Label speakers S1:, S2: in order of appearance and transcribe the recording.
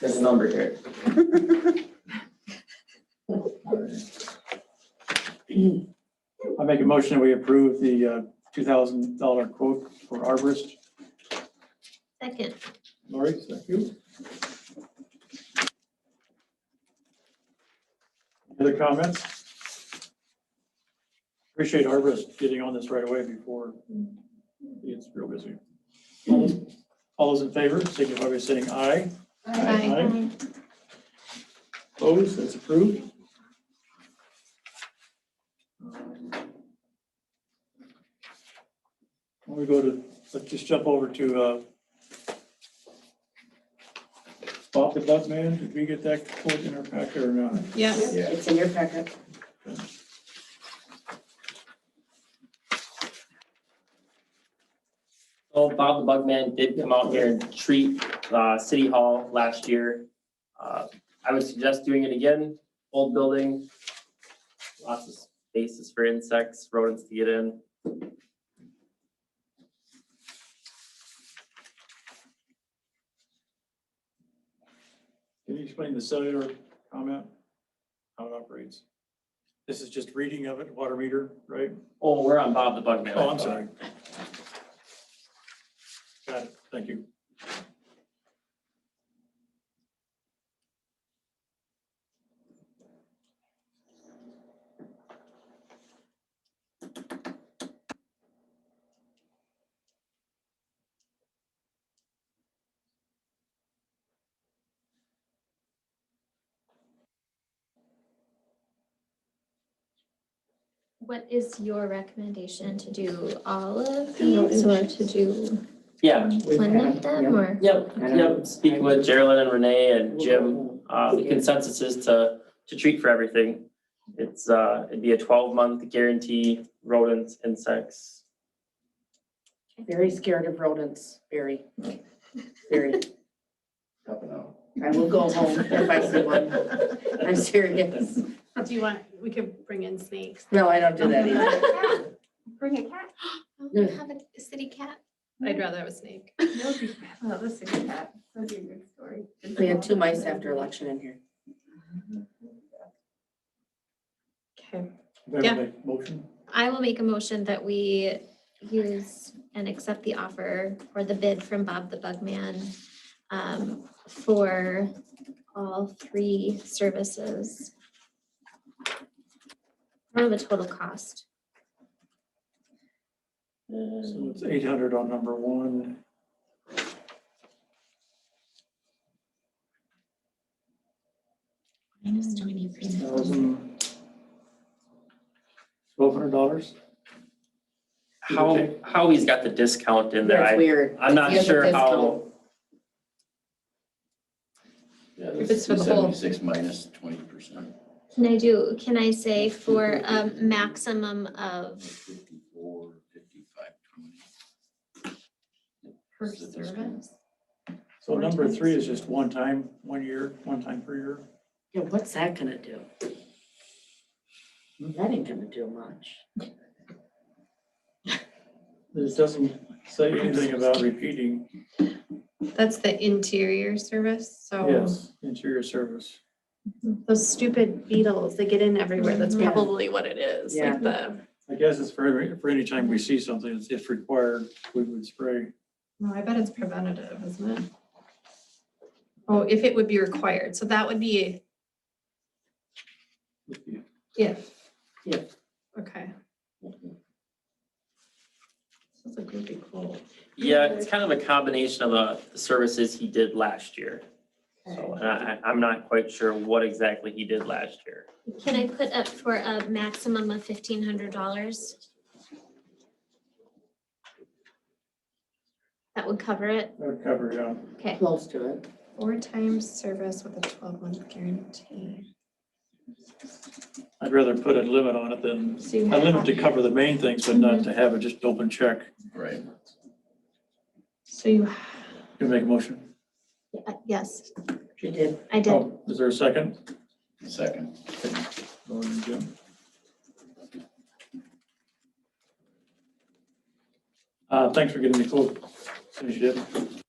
S1: There's a number here.
S2: I make a motion that we approve the uh, $2,000 quote for arborist.
S3: Second,
S2: Lori, thank you. Other comments? Appreciate arborist getting on this right away before it gets real busy. All those- All those in favor, signify by saying aye.
S3: Aye.
S2: Opposed, that's approved. We go to, let's just jump over to uh, Bob the Buck Man, did we get that quote in our packet or not?
S4: Yes.
S1: Yeah.
S5: It's in your packet.
S6: Well, Bob the Bugman did come out here and treat uh, City Hall last year. Uh, I would suggest doing it again, old building. Lots of spaces for insects, rodents to get in.
S2: Can you explain the cellular comment? How it operates? This is just reading of it, water meter, right?
S6: Oh, we're on Bob the Bugman.
S2: Oh, I'm sorry. Got it, thank you.
S3: what is your recommendation to do all of
S5: To go
S3: these or to do
S6: Yeah,
S3: one of them or?
S6: yep, yep. Speak with Geraldine and Renee and Jim. Uh, the consensus is to, to treat for everything. It's, uh, it'd be a twelve month guarantee, rodents, insects.
S5: Very scared of rodents, very, very.
S1: Help it out.
S5: I will go home if I see one. I'm serious.
S4: Do you want, we could bring in snakes.
S5: No, I don't do that either.
S7: Bring a cat.
S3: Oh, Have a city cat?
S4: I'd rather have a snake.
S7: That would be, oh, that's a good cat. That'd be a good story.
S5: We had two mice after election in here.
S4: Okay.
S2: Can I
S4: Yeah.
S2: make a Motion?
S3: I will make a motion that we use and accept the offer or the bid from Bob the Bugman um, for all three services. I don't have a total cost.
S2: So it's eight hundred on number one.
S3: Minus twenty percent.
S2: Thousand. Twelve hundred dollars?
S6: How, how he's got the discount in there,
S5: That's
S6: I,
S5: weird.
S6: I'm not
S5: He has a
S6: sure how,
S5: discount.
S1: Yeah,
S4: If it's for the whole-
S1: Seventy-six minus twenty percent.
S3: Can I do, can I say for a maximum of,
S1: Fifty-four, fifty-five, twenty.
S7: Per
S1: Is it this
S7: service?
S2: So number three is just one time, one year, one time per year.
S5: Yeah, what's that gonna do? That ain't gonna do much.
S2: It doesn't say anything about repeating.
S4: That's the interior service, so
S2: Yes,
S3: Oh.
S2: interior service.
S4: those stupid beetles, they get in everywhere. That's
S5: Mhm. Yeah.
S4: probably what it is,
S5: Yeah.
S4: like the,
S2: I guess it's for, every- for any time we see something, it's if required, we would spray.
S4: no, I bet it's preventative, isn't it? Oh, if it would be required. So that would be if.
S5: Yeah.
S4: Okay. That's a groupie quote.
S6: yeah, it's kind of a combination of uh, the- the services he did last year. So, uh, and I, I- I'm not quite sure what exactly he did last year.
S3: can I put up for a maximum of fifteen hundred dollars? That would cover it,
S2: That would uh, cover it up.
S3: okay.
S5: Close to it.
S4: Four times service with a twelve month guarantee.
S2: I'd rather put a limit on it than, a limit to cover the main things, but not to have it just open check.
S1: Right.
S4: So you,
S2: You make a motion?
S3: Uh, Yes,
S5: She did.
S3: I did.
S2: Oh, Is there a second?
S1: Second.
S2: Lauren and Jim. Uh, thanks for getting the quote. Appreciate it.